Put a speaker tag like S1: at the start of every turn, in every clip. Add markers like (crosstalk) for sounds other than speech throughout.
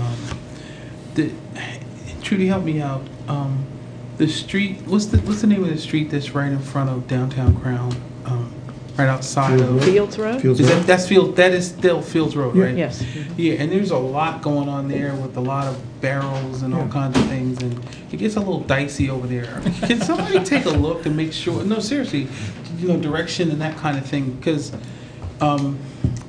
S1: Um, the, Trudy, help me out. Um, the street, what's the, what's the name of the street that's right in front of downtown Crown? Um, right outside of, is
S2: Fields Road?
S3: Fields
S1: that,
S3: Road.
S1: that's Field, that is still Fields Road,
S3: Yeah.
S1: right?
S2: Yes.
S1: Yeah, and there's a lot going on there with a lot of barrels and all
S3: Yeah.
S1: kinds of things, and it gets a little dicey over there. Can somebody take a look and make sure? No, seriously, you know, direction and that kind of thing, because um,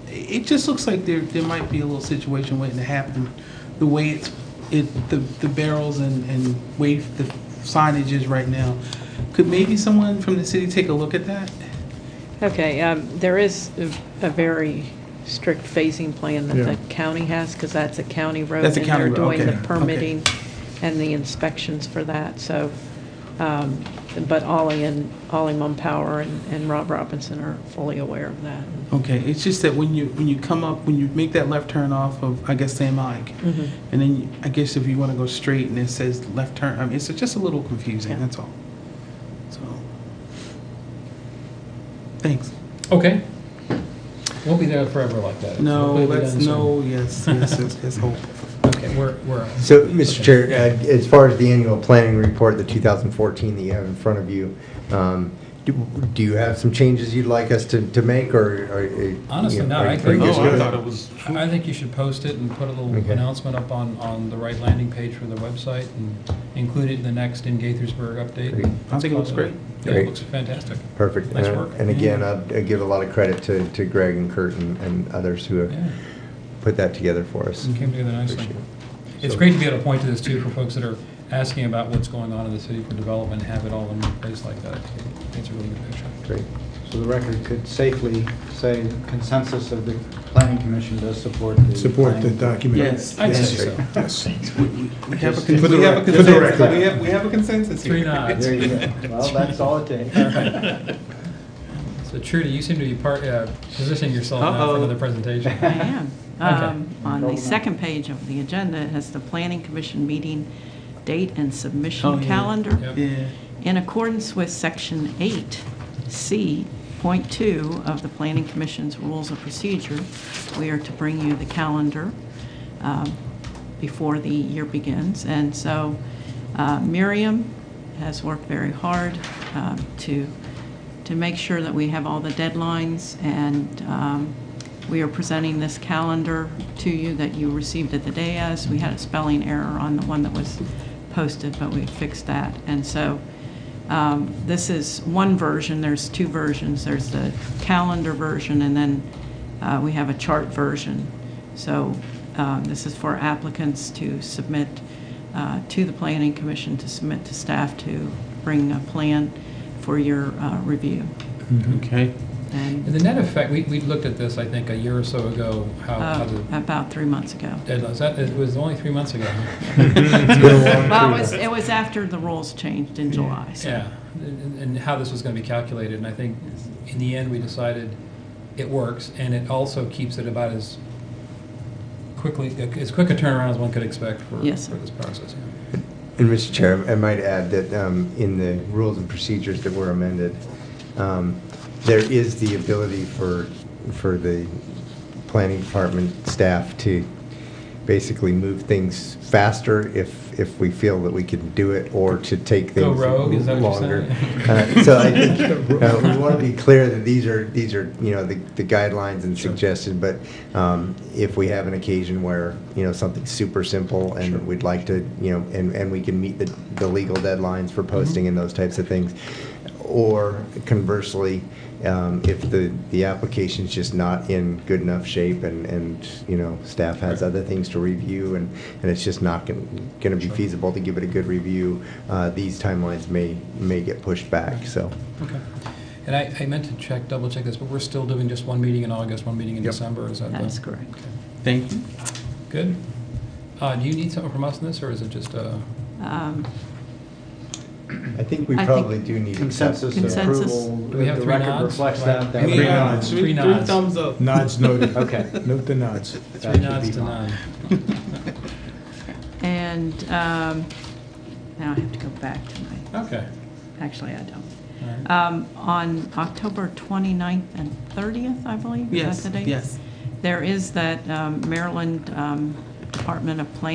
S1: it just looks like there there might be a little situation waiting to happen. The way it's it the the barrels and and way the signage is right now. Could maybe someone from the city take a look at that?
S2: Okay, um, there is a a very strict phasing plan that
S3: Yeah.
S2: the county has, because that's a county road.
S1: That's a county
S2: And
S1: road,
S2: they're
S1: okay,
S2: doing
S1: okay.
S2: the permitting and the inspections for that, so, um, but Ollie and, Ollie Mumpower and and Rob Robinson are fully aware of that.
S1: Okay, it's just that when you, when you come up, when you make that left turn off of, I guess, Sam Ike, and then you- I guess if you want to go straight and it says left turn, I mean, it's just a little confusing,
S2: Yeah.
S1: that's all. So, thanks.
S4: Okay. Won't be there forever like that.
S1: No,
S4: Hopefully we
S1: that's,
S4: done soon.
S1: no, yes, yes, yes, yes,
S5: (laughs)
S1: hope.
S4: Okay, we're, we're.
S6: So, Mr.
S4: okay.
S6: Chair, uh, as far as the annual planning report, the 2014 that you have in front of you, um, do do you have some changes you'd like us to to make, or? or, uh, you
S4: Honestly,
S6: know,
S4: no,
S6: are-
S4: I
S6: are
S4: think.
S6: you
S1: Oh,
S6: good?
S1: I thought it was-
S4: I I think you should post it and put a little
S6: Okay.
S4: announcement up on, on the right landing page for the website and include it in the next in Gaithersburg update.
S6: Great.
S1: I think it looks great.
S4: Yeah, it
S6: Great.
S4: looks fantastic.
S6: Perfect. Uh,
S4: Nice
S6: And-
S4: work.
S6: And again, I'd I'd give a lot of credit to to Greg and Kurt and- and others who have
S4: Yeah,
S6: put that together for us.
S4: it came together nicely.
S6: Appreciate
S4: It's
S6: So-
S4: great to be able to point to this too for folks that are asking about what's going on in the city for development, have it all in one place like that. It's a really good picture.
S6: Great.
S5: So the record could safely say the consensus of the planning commission does support the.
S3: Support the
S5: planning-
S3: document.
S1: Yes.
S4: I'd
S3: Yes.
S4: say so.
S3: Yes.
S1: We- We we have a
S5: For
S1: con-
S3: the
S1: we have a
S3: rec- for the
S1: consensus,
S3: record.
S1: we have, we have a consensus here.
S4: Three nods.
S5: There you go. Well, that's all
S1: (laughs)
S5: it takes.
S4: So Trudy, you seem to be part, uh, positioning yourself now for
S1: Uh-oh.
S4: another presentation.
S7: I am.
S4: Okay.
S7: Um, On the second page of the agenda, it has the Planning Commission meeting date and
S1: Oh,
S7: submission
S1: yeah.
S7: calendar.
S4: Yep.
S1: Yeah,
S7: In accordance with Section 8C.2 of the Planning Commission's Rules of Procedure, we are to bring you the calendar um, before the year begins. And so uh, Miriam has worked very hard um, to, to make sure that we have all the deadlines, and um, we are presenting this calendar to you that you received at the day as. We had a spelling error on the one that was posted, but we fixed that. And so um, this is one version, there's two versions. There's the calendar version, and then uh, we have a chart version. So um, this is for applicants to submit uh, to the Planning Commission, to submit to staff to bring a plan for your uh, review.
S1: (laughs) okay.
S7: And
S4: Hmm. And the net effect, we, we looked at this, I think, a year or so ago, how, how
S7: uh,
S4: the
S7: about three months ago.
S4: deadlines, that, it was only three months ago. huh?
S1: (laughs)
S7: Well, it was, it was after the rules changed in July, so.
S4: Yeah, and, and how this was gonna be calculated, and I think in the end, we decided it works, and it also keeps it about as quickly, as quick a turnaround as one could expect for,
S7: Yes, sir.
S4: for this process. yeah.
S6: And Mr. Chair, I might add that um, in the rules and procedures that were amended, um, there is the ability for, for the planning department staff to basically move things faster if, if we feel that we can do it, or to take
S4: Go
S6: things
S4: rogue, is that what you're
S6: longer.
S4: saying?
S6: (laughs) Uh,
S4: (laughs)
S6: So I think, uh, we want to be clear that these are, these are, you know, the the guidelines and suggestions, but um, if we have an occasion where, you know, something's super simple and we'd like to, you know, and, and we can meet the, the legal deadlines for posting and those types of things. Or conversely, um, if the, the application's just not in good enough shape and, and, you know, staff has other things to review and, and it's just not going to be feasible to give it a good review, uh, these timelines may, may get pushed back, so.
S4: Okay. And I, I meant to check, double check this, but we're still doing just one meeting in August, one meeting in
S6: Yep.
S4: December, is that? the-
S7: That is correct.
S1: Thank you.
S4: Good. Uh, do you need something from us in this, or is it just, uh,
S7: Um,
S6: I think we
S7: I think
S6: probably do need.
S5: Consensus of
S7: Consensus.
S5: approval.
S4: Do we have
S5: The
S4: three
S5: record
S4: nods?
S5: Reflects that. that-
S3: Three
S1: Yeah,
S3: nods.
S1: Three
S4: Three
S1: three
S4: nods.
S1: thumbs up.
S3: Nods noted.
S5: Okay.
S3: Note the nods.
S5: that
S4: three
S5: should
S4: nods
S5: be
S4: to
S5: fine.
S4: nine?
S7: And um, now I have to go back to my,
S4: Okay.
S7: actually, I don't.
S4: Oh. All right.
S7: Um, On October 29th and 30th, I believe, is
S1: Yes,
S7: that the date?
S1: yes.
S7: There is that um, Maryland um, Department of Planning